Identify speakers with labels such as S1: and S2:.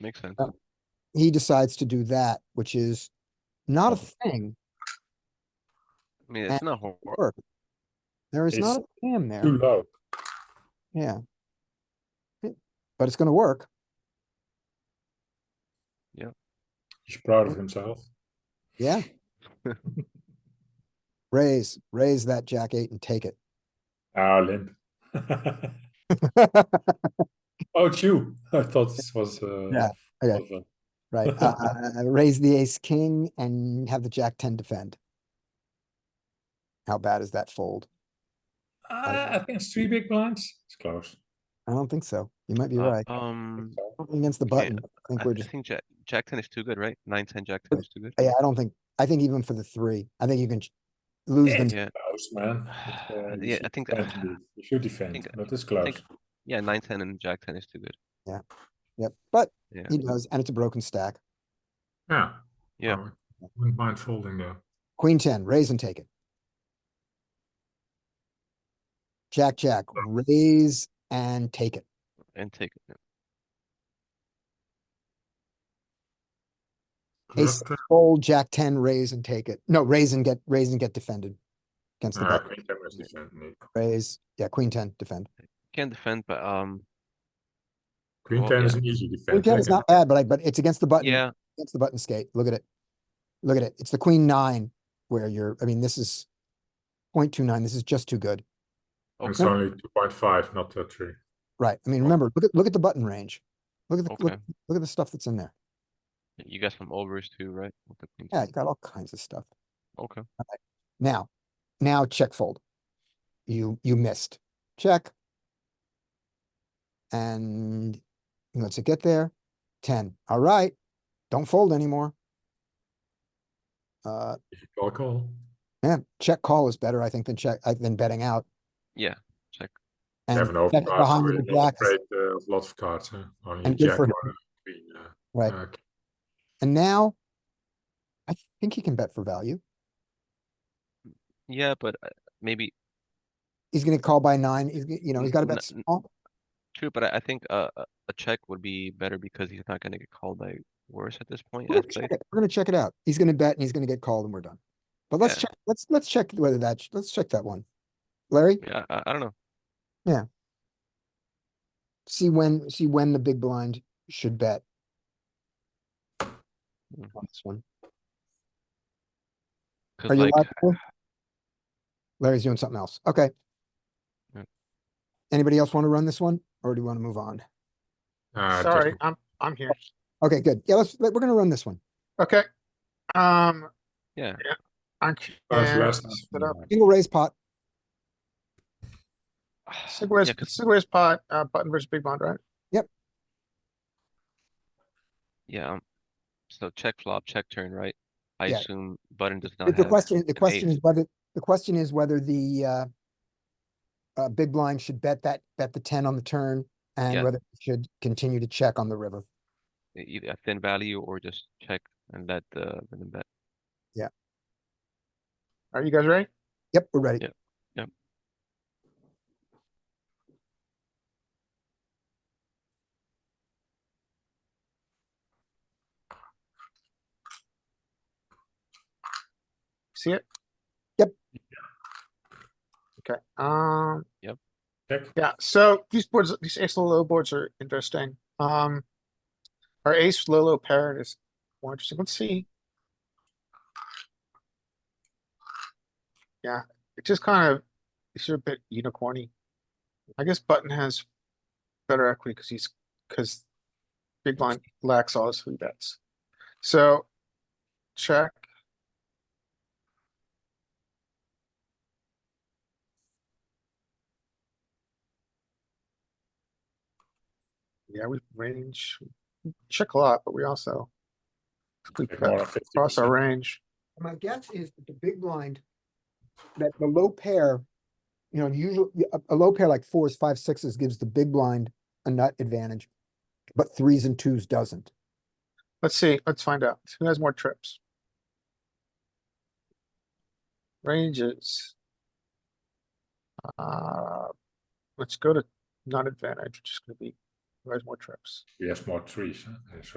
S1: makes sense.
S2: Uh, he decides to do that, which is not a thing.
S1: I mean, it's not hor-
S2: Work. There is not a
S3: It's
S2: jam
S3: Too
S2: there,
S3: low.
S2: yeah. It- But it's gonna work.
S3: He's proud of himself.
S2: Yeah. Raise, raise that jack eight and take it.
S3: Ah, limp. oh, it's you. I thought this was. Uh,
S2: Yeah, okay.
S3: was, uh,
S2: Right, uh, uh, uh, raise the ace king and have the jack ten defend. How bad is that fold?
S3: ah, I think it's three big blinds. It's close.
S2: I don't think so. You might be
S1: uh,
S2: right.
S1: Um,
S2: Against the
S1: okay,
S2: button, I
S1: I
S2: think
S1: I
S2: we're just,
S1: think jack, jack ten is too good, right? Nine, ten, jack ten is too good.
S2: yeah, I don't think, I think even for the three, I think you can ch- lose them.
S1: Yeah,
S3: Close, man. But, uh, you
S1: Yeah,
S3: should
S1: I think-
S3: defend indeed. you should defend,
S1: think-
S3: but it's close.
S1: think- yeah, nine, ten and jack ten is too good.
S2: Yep, but
S1: Yeah.
S2: he does, and it's a broken stack.
S3: yeah.
S1: Yeah.
S3: I wouldn't mind folding there.
S2: Queen ten, raise and take it. Jack, jack,
S1: Oh.
S2: raise and take it.
S1: And take, it.
S2: Ace,
S3: Club,
S2: fold, jack ten, raise and take it. No, raise and get, raise and get defended. Against the
S3: uh,
S2: button,
S3: queen ten was defend, indeed.
S2: raise, yeah, queen ten, defend.
S1: can't defend, but, um,
S3: Queen
S1: Well,
S3: ten
S1: yeah.
S3: is an easy defense.
S2: Queen ten is
S3: I can-
S2: not bad, but I, but it's against the button,
S1: yeah,
S2: against the button skate. Look at it. Look at it. It's the queen nine where you're, I mean, this is point two nine. This is just too good.
S3: It's
S1: okay,
S3: only two point five, not uh, three.
S2: Right. I mean, remember, look at, look at the button range. Look at the, look,
S1: Oh. Okay.
S2: look at the stuff that's in there.
S1: you got some overs too, right? with the queen
S2: Yeah,
S1: ten?
S2: you got all kinds of stuff.
S1: Okay,
S2: Now, now check fold. You, you missed. Check. And let's it get there. Ten. All right. Don't fold anymore. Uh,
S3: Call call.
S2: yeah, check call is better, I think, than check, uh, than betting out.
S1: yeah, check,
S2: And
S3: Seven over
S2: check
S3: cards.
S2: behind
S3: We're
S2: the
S3: not
S2: black is-
S3: afraid uh, of lots of cards. Huh? Only
S2: And good
S3: jack
S2: for
S3: or
S2: him.
S3: a queen. Uh,
S2: Right.
S3: uh,
S2: And now I think he can bet for value.
S1: yeah, but uh, maybe,
S2: He's gonna call by nine. He's, g- you know, he's gotta bet
S1: N- n-
S2: small.
S1: true, but I, I think, uh, a- a check would be better because he's not gonna get called by worse at this point.
S2: We're
S1: as
S2: gonna
S1: played.
S2: check it. We're gonna check it out. He's gonna bet and he's gonna get called and we're done. But let's
S1: Yeah.
S2: check, let's, let's check whether that, sh- let's check that one. Larry,
S1: Yeah, I, I don't know,
S2: see when, see when the big blind should bet.
S1: Mm.
S2: On this one. Are
S1: cause
S2: you
S1: like,
S2: live? Larry? Larry's doing something else. Okay.
S1: Yeah.
S2: Anybody else want to run this one or do you want to move on?
S3: uh,
S4: Sorry,
S3: just-
S4: I'm, I'm here.
S2: Okay, good. Yeah, let's, we're gonna run this one.
S4: Okay. Um.
S1: Yeah.
S4: I'm.
S3: Cards
S4: and
S3: less
S4: set up.
S2: Single raise pot.
S4: Sigways,
S1: yeah, 'cause-
S4: Sigways pot, uh, button versus big blind, right?
S1: yeah, um, so check flop, check turn, right? I
S2: Yeah.
S1: assume button does not
S2: But The
S1: have,
S2: question, the question is whether, the question is whether the, uh, uh, big blind should bet that, bet the ten on the turn and
S1: Yeah.
S2: whether it should continue to check on the river.
S1: e, either a thin value or just check and let the, let them bet.
S4: Are you guys ready?
S2: Yep, we're ready.
S1: Yeah. Yep.
S4: See it?
S2: Yep.
S4: Okay, um,
S3: check.
S4: yeah, so these boards, these ace low low boards are interesting. Um. Our ace low low pair is more interesting. Let's see. Yeah, it just kind of, it's a bit unicorny. I guess button has better equity because he's, because big blind lacks all his three bets. So check. Yeah, we range, check a lot, but we also we
S3: Check
S4: bet
S3: more than 50%.
S4: across our range.
S2: My guess is that the big blind, that the low pair, you know, usually a, a low pair like fours, five, sixes gives the big blind a nut advantage, but threes and twos doesn't.
S4: Let's see, let's find out. Who has more trips? Ranges. Uh, let's go to non-advantage, which is gonna be, who has more trips?
S3: He has more trees. Huh? Yes.